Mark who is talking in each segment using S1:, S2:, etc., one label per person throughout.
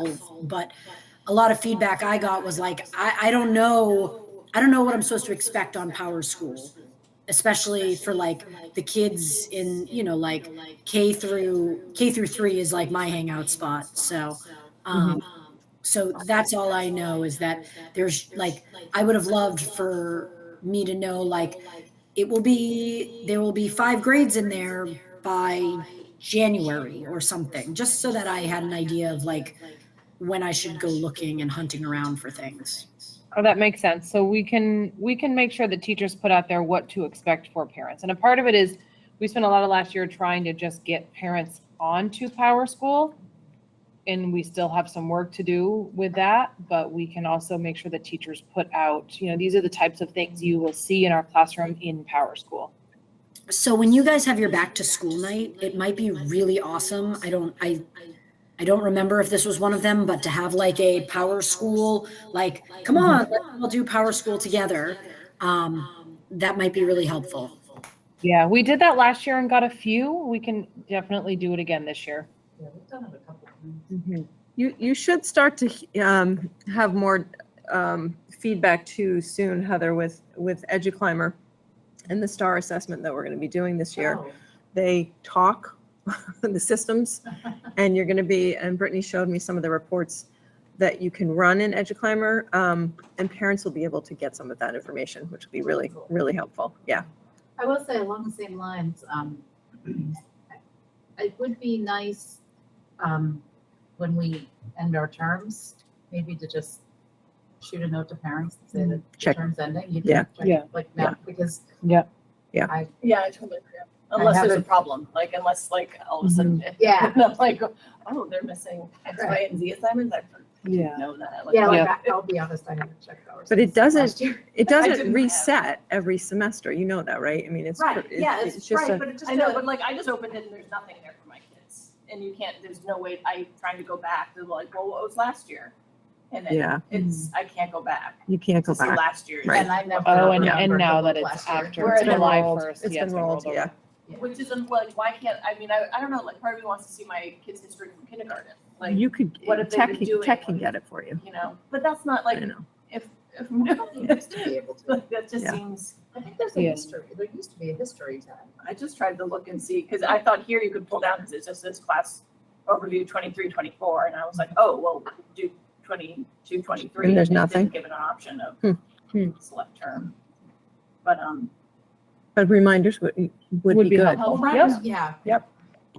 S1: solve, but a lot of feedback I got was like, I, I don't know, I don't know what I'm supposed to expect on Power School, especially for like the kids in, you know, like K through K through three is like my hangout spot. So, um, so that's all I know is that there's like, I would have loved for me to know like it will be there will be five grades in there by January or something, just so that I had an idea of like when I should go looking and hunting around for things.
S2: Oh, that makes sense. So we can, we can make sure that teachers put out there what to expect for parents. And a part of it is, we spent a lot of last year trying to just get parents onto Power School. And we still have some work to do with that, but we can also make sure that teachers put out, you know, these are the types of things you will see in our classroom in Power School.
S1: So when you guys have your back to school night, it might be really awesome. I don't I I don't remember if this was one of them, but to have like a power school, like come on, let's all do power school together. Um, that might be really helpful.
S2: Yeah, we did that last year and got a few. We can definitely do it again this year. Mm-hmm.
S3: Yeah, we've done it a couple of times.
S4: You, you should start to he- um, have more um, feedback too soon, Heather, with, with EduClimber and the STAR assessment that we're going to be doing this year.
S3: Oh,
S4: They talk, the systems, and you're going to be, and Brittany showed me some of the reports that you can run in EduClimber, um, and parents will be able to get some of that information, which will be really, really helpful. Yeah.
S5: I will say along the same lines, um, it would be nice, um, when we end our terms, maybe to just shoot a note to parents and say that the
S4: Check.
S5: term's ending. you
S4: Yeah.
S5: check,
S2: Mm-hmm. Yeah.
S5: Like
S4: Yeah.
S5: now, because
S6: Yeah, I totally agree.
S5: I
S6: Unless there's a
S5: haven't-
S6: problem, like unless like all of a sudden.
S5: Yeah.
S6: I'm like, oh, they're missing X,
S5: Right.
S6: Y, and Z assignments. I
S2: Yeah.
S6: didn't know that. Like,
S5: Yeah, like,
S2: Yeah.
S5: I- I'll be honest, I haven't checked ours.
S4: But it
S5: since
S4: doesn't-
S5: last year.
S4: It
S6: I
S4: doesn't
S6: didn't have-
S4: reset every semester. You know that, right? I mean, it's.
S6: Right,
S4: it-
S6: yeah,
S4: it's
S6: it's
S4: just a-
S6: right, but it just, I know, but like I just opened it and there's nothing there for my kids. And you can't, there's no way, I trying to go back, they're like, well, what was last year? And then
S4: Yeah,
S6: it's, I can't go back
S4: you can't go
S6: to see
S4: back.
S6: last year's.
S4: Right.
S5: And I never.
S2: Oh, and, and
S5: remembered
S2: now
S5: the
S2: that
S5: book
S2: it's
S5: last year.
S2: after
S6: Where it's been
S2: July
S4: rolled.
S2: 1st.
S4: It's
S2: yeah,
S4: been rolled,
S2: over.
S4: yeah.
S6: Which is, un- like, why can't, I mean, I, I don't know, like part of me wants to see my kids' history from kindergarten. Like,
S4: You could,
S6: what have they
S4: tech,
S6: been
S4: can-
S6: doing?
S4: tech can get it for you.
S6: you know, but that's not
S4: I
S6: like,
S4: know.
S6: if, if, like,
S5: Be able to.
S6: that just
S4: Yeah.
S6: seems,
S5: I think there's a
S2: Yeah.
S5: history, there used to be a history tab.
S6: I just tried to look and see, because I thought here you could pull down, because it just says class overview 23, 24, and I was like, oh, well, do 22, 23.
S4: And there's
S6: it didn't
S4: nothing?
S6: Give it an option
S4: Hmm.
S6: of
S2: Hmm.
S6: select term. But, um,
S4: But reminders would, would be good.
S6: helpful.
S2: Yep.
S5: Yeah.
S4: Yep.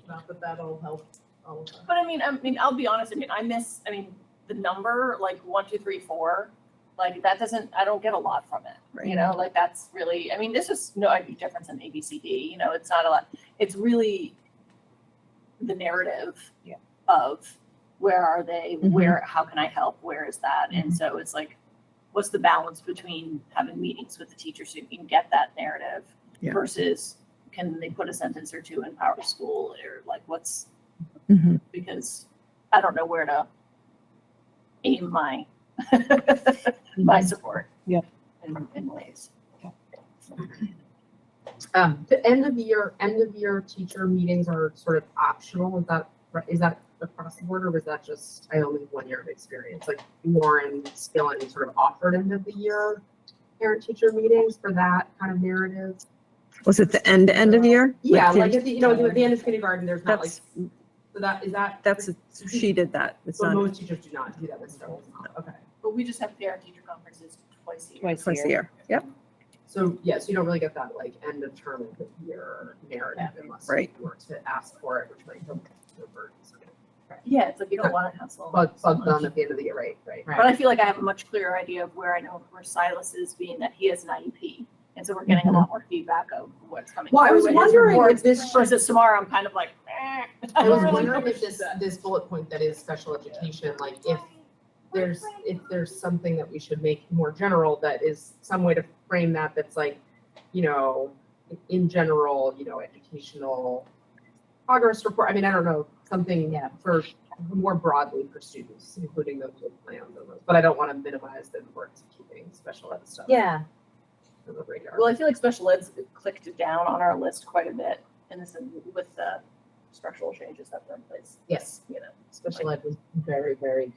S5: Not that that'll help all of us.
S6: But I mean, I mean, I'll be honest, I mean, I miss, I mean, the number, like one, two, three, four, like that doesn't, I don't get a lot from it. You
S4: Right.
S6: know, like that's really, I mean, this is no big difference in A, B, C, D, you know, it's not a lot. It's really the narrative
S2: Yeah.
S6: of where are they,
S4: Mhm.
S6: where, how can I help, where is that?
S4: Mm-hmm.
S6: And so it's like, what's the balance between having meetings with the teachers so you can get that narrative
S4: Yeah.
S6: versus can they put a sentence or two in Power School or like what's,
S4: Mhm.
S6: because I don't know where to aim my my support.
S2: Yeah.
S6: In, in ways.
S5: Um, the end of year, end of year teacher meetings are sort of optional. Is that, right- is that across the board or was that just, I only have one year of experience? Like Lauren Skillen sort of offered end of the year parent teacher meetings for that kind of narrative?
S4: Was it the end, end of year?
S5: Yeah,
S4: Like,
S5: like, at the- you know, at the end of kindergarten, there's not like,
S4: That's,
S5: so that, is that?
S4: that's, she did that. It's
S5: So
S4: not
S5: most teachers do not do that this term. it's not, Okay.
S6: But we just have parent teacher conferences twice a year.
S2: Twice
S4: twice a year. Yep,
S5: So, yes, you don't really get that like end of term of the year narrative unless you
S4: Right.
S5: were to ask for it, which might come to a burden.
S6: Yeah, it's like you don't want to hustle.
S5: Bug,
S6: so
S5: bug done
S6: much.
S5: at the end of the year, right? Right.
S6: But I feel like I have a much clearer idea of where I know where Silas is, being that he has an IEP. And so we're getting a
S2: Mm-hmm.
S6: lot more feedback of what's coming.
S5: Well, I
S6: through
S5: was
S6: in his
S5: wondering
S6: reports.
S5: if this should,
S6: Versus tomorrow, I'm kind of like, eh.
S5: I was
S6: don't really
S5: wondering
S6: know
S5: if this, this bullet point that is special education, like if there's, if there's something that we should make more general that is some way to frame that, that's like, you know, in general, you know, educational progress report, I mean, I don't know, something
S6: Yeah.
S5: for more broadly for students, including those with plans and those, but I don't want to minimize the importance of keeping special ed stuff.
S6: Yeah.
S5: On the radar.
S6: Well, I feel like special ed's clicked down on our list quite a bit, and this is with the structural changes that were in place,
S5: Yes,
S6: you know.
S5: special ed was very, very